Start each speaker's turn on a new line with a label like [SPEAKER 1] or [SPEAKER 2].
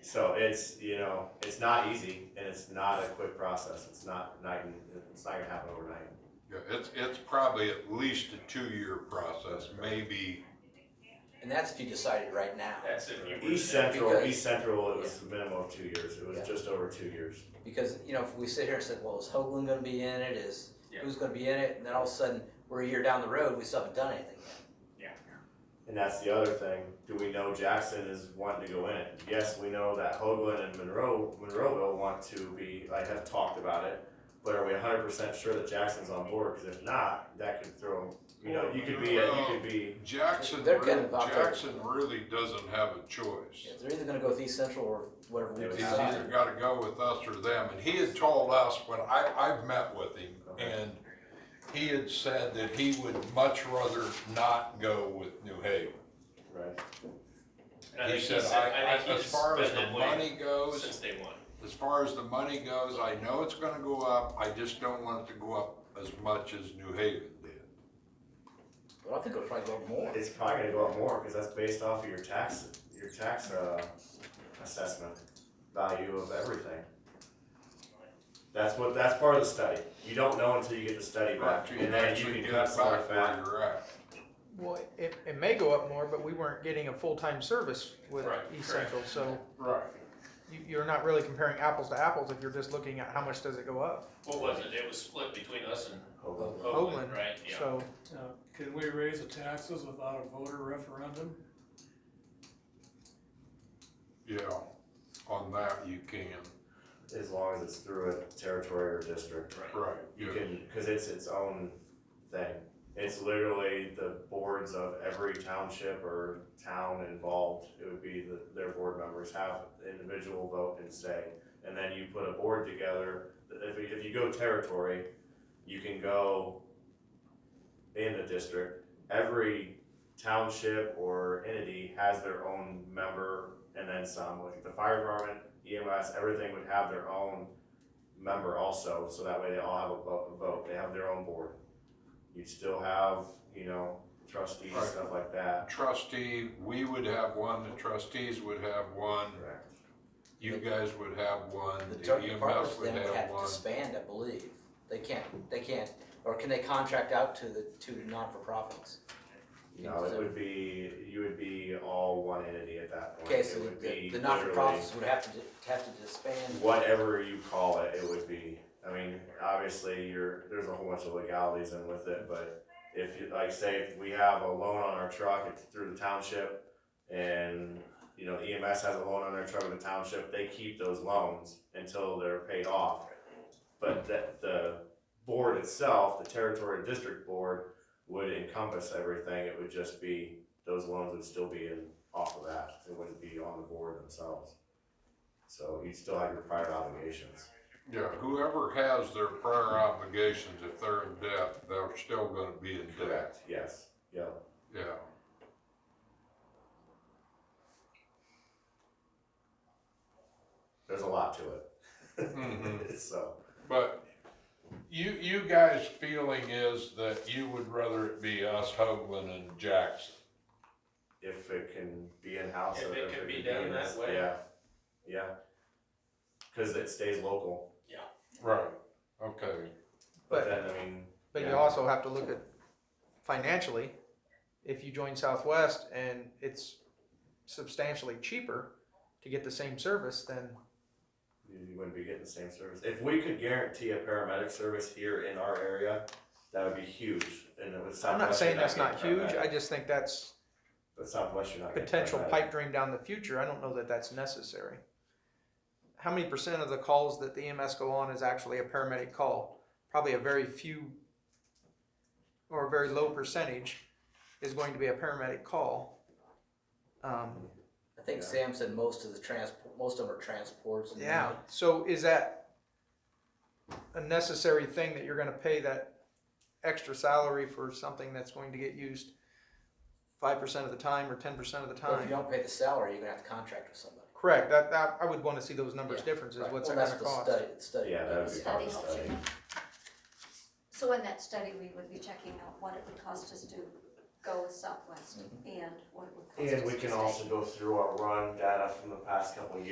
[SPEAKER 1] So it's, you know, it's not easy and it's not a quick process. It's not night and, it's not gonna happen overnight.
[SPEAKER 2] Yeah, it's, it's probably at least a two-year process, maybe,
[SPEAKER 3] And that's if you decided right now,
[SPEAKER 4] That's if you were.
[SPEAKER 1] East
[SPEAKER 4] to-
[SPEAKER 1] Central,
[SPEAKER 3] Because-
[SPEAKER 1] East Central, it was a minimum of two years. It was
[SPEAKER 3] Yeah.
[SPEAKER 1] just over two years.
[SPEAKER 3] because, you know, if we sit here and said, well, is Hoagland gonna be in it, is,
[SPEAKER 4] Yeah.
[SPEAKER 3] who's gonna be in it, and then all of a sudden, we're a year down the road, we still haven't done anything yet.
[SPEAKER 1] And that's the other thing. Do we know Jackson is wanting to go in it? Yes, we know that Hoagland and Monroe, Monroeville want to be, I have talked about it. But are we hundred percent sure that Jackson's on board? Cause if not, that could throw, you know, you could be, a- you could be,
[SPEAKER 2] Jackson,
[SPEAKER 3] They're kind
[SPEAKER 2] really-
[SPEAKER 3] of out there.
[SPEAKER 2] Jackson really doesn't have a choice.
[SPEAKER 3] They're either gonna go with East Central or whatever we
[SPEAKER 1] Yeah,
[SPEAKER 2] He's
[SPEAKER 1] East
[SPEAKER 3] decide.
[SPEAKER 2] either gotta go with us or them, and he had told us, when I, I've met with him, and he had said that he would much rather not go with New Haven.
[SPEAKER 1] right?
[SPEAKER 4] And I
[SPEAKER 2] He
[SPEAKER 4] think
[SPEAKER 2] said,
[SPEAKER 4] he's-
[SPEAKER 2] I, I,
[SPEAKER 4] think he's
[SPEAKER 2] as far as
[SPEAKER 4] been that
[SPEAKER 2] the
[SPEAKER 4] way
[SPEAKER 2] money goes,
[SPEAKER 4] Since day one.
[SPEAKER 2] As far as the money goes, I know it's gonna go up, I just don't want it to go up as much as New Haven did.
[SPEAKER 3] But I think it'll probably go more.
[SPEAKER 1] It's probably gonna go up more, cause that's based off of your tax, your tax, uh, assessment value of everything. That's what, that's part of the study, you don't know until you get the study back,
[SPEAKER 2] After you
[SPEAKER 1] and then you
[SPEAKER 2] actually
[SPEAKER 1] can
[SPEAKER 2] get
[SPEAKER 1] cut
[SPEAKER 2] back
[SPEAKER 1] some of the
[SPEAKER 2] where
[SPEAKER 1] fat.
[SPEAKER 2] you're at.
[SPEAKER 5] Well, it, it may go up more, but we weren't getting a full-time service with
[SPEAKER 4] Right,
[SPEAKER 5] East
[SPEAKER 4] correct.
[SPEAKER 5] Central, so
[SPEAKER 2] Right.
[SPEAKER 5] you, you're not really comparing apples to apples if you're just looking at how much does it go up.
[SPEAKER 4] What was it? It was split between us and
[SPEAKER 1] Hold on.
[SPEAKER 4] Oakland,
[SPEAKER 5] Oakland,
[SPEAKER 4] right? Yeah.
[SPEAKER 5] So,
[SPEAKER 6] Now, could Uh, we raise the taxes without a voter referendum?
[SPEAKER 2] Yeah, on that you can,
[SPEAKER 1] As long as it's through a territory or district,
[SPEAKER 4] Right.
[SPEAKER 2] right,
[SPEAKER 1] you
[SPEAKER 2] yeah,
[SPEAKER 1] can, cause it's its own thing. It's literally the boards of every township or town involved, it would be the, their board members have individual vote and say. And then you put a board together, if, if you go territory, you can go in the district. Every township or entity has their own member and then some, like the fire department, EMS, everything would have their own member also, so that way they all have a vo- a vote, they have their own board. You'd still have, you know, trustees,
[SPEAKER 2] Right.
[SPEAKER 1] stuff like that.
[SPEAKER 2] trustee, we would have one, the trustees would have one,
[SPEAKER 1] Correct.
[SPEAKER 2] you guys would have one,
[SPEAKER 3] The
[SPEAKER 2] the
[SPEAKER 3] ter-
[SPEAKER 2] EMS
[SPEAKER 3] departments
[SPEAKER 2] would
[SPEAKER 3] then would
[SPEAKER 2] have
[SPEAKER 3] have to
[SPEAKER 2] one.
[SPEAKER 3] disband, I believe. They can't, they can't, or can they contract out to the, to non-for-profits?
[SPEAKER 1] No, it would be, you would be all one entity at that point.
[SPEAKER 3] Okay, so
[SPEAKER 1] It would
[SPEAKER 3] the,
[SPEAKER 1] be
[SPEAKER 3] the
[SPEAKER 1] literally
[SPEAKER 3] not-for-profits would have to, di- have to disband.
[SPEAKER 1] Whatever you call it, it would be, I mean, obviously, you're, there's a whole bunch of legalities in with it, but if you, like, say, if we have a loan on our truck, it's through the township, and, you know, EMS has a loan on their truck with the township, they keep those loans until they're paid off. But that, the board itself, the territory district board, would encompass everything, it would just be, those loans would still be in, off of that, it wouldn't be on the board themselves. So you'd still have your prior obligations.
[SPEAKER 2] Yeah, whoever has their prior obligations, if they're in debt, they're still gonna be in debt,
[SPEAKER 1] Yes, yeah,
[SPEAKER 2] yeah.
[SPEAKER 1] there's a lot to
[SPEAKER 5] Mm-hmm.
[SPEAKER 2] Mhm.
[SPEAKER 1] it, so.
[SPEAKER 2] But you, you guys' feeling is that you would rather it be us, Hoagland and Jackson.
[SPEAKER 1] If it can be in-house.
[SPEAKER 4] If
[SPEAKER 1] or
[SPEAKER 4] it can be done
[SPEAKER 1] in
[SPEAKER 4] that
[SPEAKER 1] this-
[SPEAKER 4] way.
[SPEAKER 1] Yeah, yeah. Cause it stays local,
[SPEAKER 2] Right. Okay,
[SPEAKER 1] but
[SPEAKER 5] But-
[SPEAKER 1] then, I mean,
[SPEAKER 5] but you
[SPEAKER 1] Yeah.
[SPEAKER 5] also have to look at financially, if you join Southwest and it's substantially cheaper to get the same service, then
[SPEAKER 1] you you wouldn't be getting the same service. If we could guarantee a paramedic service here in our area, that would be huge, and it would.
[SPEAKER 5] I'm not
[SPEAKER 1] Southwest,
[SPEAKER 5] saying
[SPEAKER 1] you're
[SPEAKER 5] that's not
[SPEAKER 1] getting
[SPEAKER 5] huge,
[SPEAKER 1] paramedic.
[SPEAKER 5] I just think that's
[SPEAKER 1] But Southwest, you're not. getting
[SPEAKER 5] potential
[SPEAKER 1] paramedic.
[SPEAKER 5] pipe dream down the future, I don't know that that's necessary. How many percent of the calls that the EMS go on is actually a paramedic call? Probably a very few or a very low percentage is going to be a paramedic call. Um,
[SPEAKER 3] I think
[SPEAKER 1] Yeah.
[SPEAKER 3] Sam said most of the transport, most of them are transports. and-
[SPEAKER 5] yeah, so is that a necessary thing that you're gonna pay that extra salary for something that's going to get used five percent of the time or ten percent of the
[SPEAKER 3] But if you
[SPEAKER 5] time?
[SPEAKER 3] don't pay the salary, you're gonna have to contract with somebody.
[SPEAKER 5] Correct, that, that, I would wanna see those numbers
[SPEAKER 3] Yeah,
[SPEAKER 5] differences,
[SPEAKER 3] Right.
[SPEAKER 5] what's
[SPEAKER 3] Well,
[SPEAKER 5] that
[SPEAKER 3] that's the
[SPEAKER 5] gonna cost?
[SPEAKER 3] Study, the study.
[SPEAKER 1] Yeah, that would be part of the
[SPEAKER 7] Studies
[SPEAKER 1] study.
[SPEAKER 7] So in that study, we would be checking out what it would cost us to go with
[SPEAKER 1] Mm-hmm.
[SPEAKER 7] Southwest and what it would cost us to
[SPEAKER 1] And we can
[SPEAKER 7] stay.
[SPEAKER 1] also go through our run data from the past couple of years.